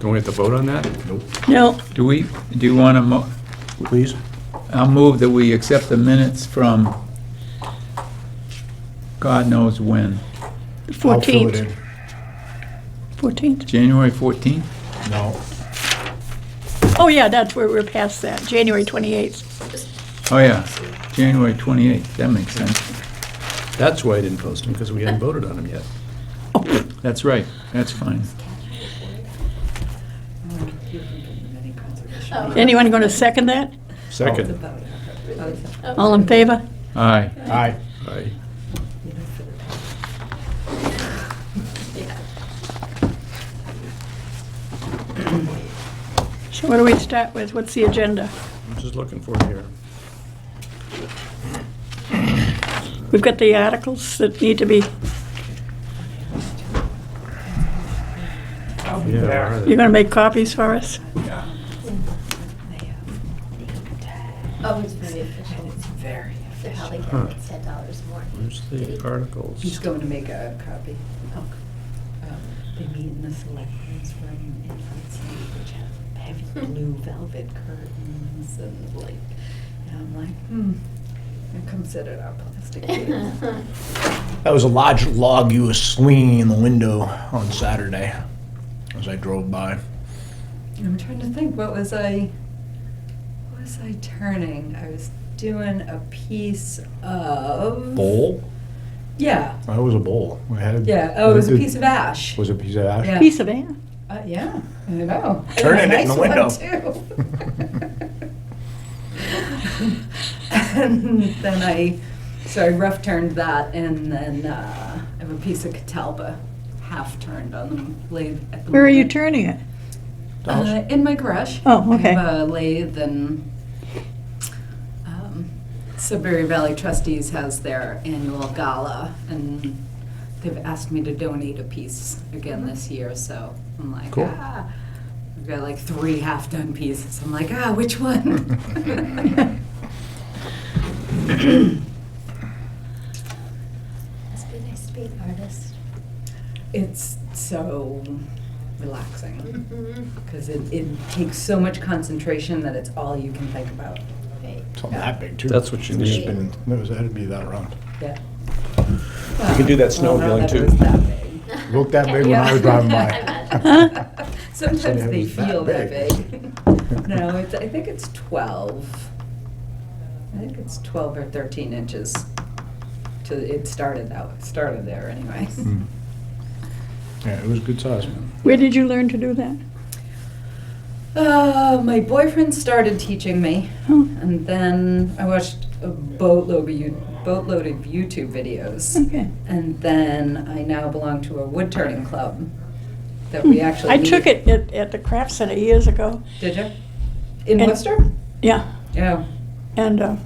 Do we have to vote on that? Nope. No, Do we, do you want to, mo- Please? I'll move that we accept the minutes from God knows when, the I'll fill it 14th, in. 14th. January 14th? No. Oh, yeah, that's where we're past that, January 28th. Oh, yeah, January 28th, that makes sense. That's why I didn't post them, because we hadn't voted on them yet. That's right, that's fine. Anyone going to second that? Oh, Second. All in favor? Aye. Aye. Aye. So what do we start with? What's the agenda? I'm just looking for it here. We've got the articles that need to be, Oh, Yeah, where are they? you're going to make copies for us? Oh, it's very efficient. It's very efficient. They're probably getting it ten dollars more. Where's the He's articles? going to make a copy. Oh. Um, They meet in the selectmen's room and it's, which have heavy blue velvet curtains and like, and I'm like, hmm. And come sit at our plastic tables. That was a large log you were swinging in the window on Saturday as I drove by. I'm trying to think, what was I, what was I turning? I was doing a piece of. Bowl? Yeah, That was a bowl. We had- yeah. Oh, it was a piece of ash. Was it a piece of ash? Yeah. Piece of air. Uh, yeah, I know. Turning it in Nice the one, window. too. and then I, so I rough turned that, and then uh, I have a piece of catalpa half turned on the lathe. At the Where are you moment. turning it? Uh, in my garage. Oh, okay. I have a lathe and um, Sudbury Valley Trustees has their annual gala, and they've asked me to donate a piece again Mm-hmm. this year, so I'm like, Cool. ah. I've got like three half-done pieces. I'm like, ah, which one? Must be nice to be an artist. It's so relaxing Mhm. because it, it takes so much concentration that it's all you can think about. Right. Something that big, too. That's what you It's need. been- That was, that'd be that round. Yeah. You can do that snow Well, feeling, not that it too. was that big. Looked that big when I was driving by. Sometimes it they was that feel that big. big. No, it's, I think it's twelve. I think it's twelve or thirteen inches to, it started out, it started there anyway. Hmm. Mm. Yeah, it was a good size, man. Where did you learn to do that? Uh, my boyfriend started teaching me Oh, and then I watched a boatload of, you- boatload of YouTube videos. okay. And then I now belong to a wood turning club that we actually. Hmm. I took meet- it at, at the craft center years ago. Did you? In And- Worcester? Yeah, Yeah. and uh,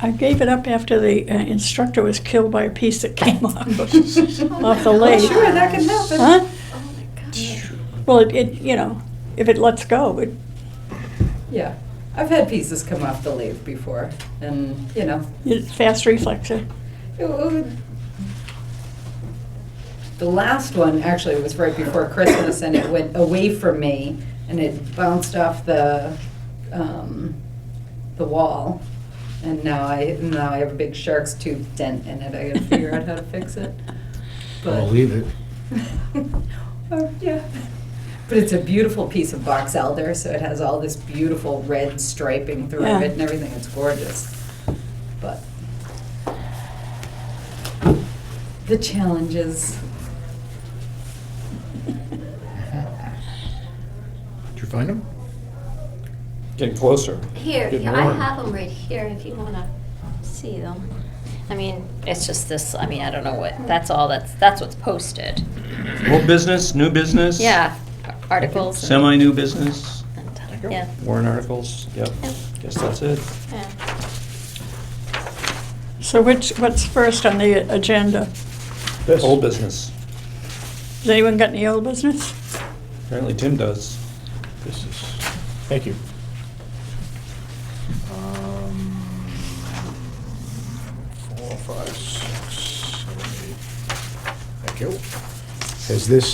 I gave it up after the uh, instructor was killed by a piece that came off, off the Well, lathe. Oh, sure, that can happen. Huh? Oh my god. Well, it, it, you know, if it lets go, it, Yeah, I've had pieces come off the lathe before, and you know, it's fast reflexer. it would- the last one actually was right before Christmas, and it went away from me, and it bounced off the um, the wall, and now I now I have a big shark's tooth dent in it. I got to figure out how to fix it. I'll leave it. Oh, yeah. But it's a beautiful piece of box elder, so it has all this beautiful red striping through Yeah. it and everything. It's gorgeous. But the challenges. Did you find him? Getting closer. Here, Good yeah, I morning. have them right here if you wanna see them. I mean, it's just this, I mean, I don't know what, that's all, that's, that's what's posted. Old business, new business? Yeah, articles. and- Semi-new business, and, Yeah. warrant articles, yep, guess that's it. yeah. So which, what's first on the agenda? This. Old business, Has anyone got any old business? apparently Tim does. This is, thank you. Um, Four, five, six, seven, eight. Thank you. Has this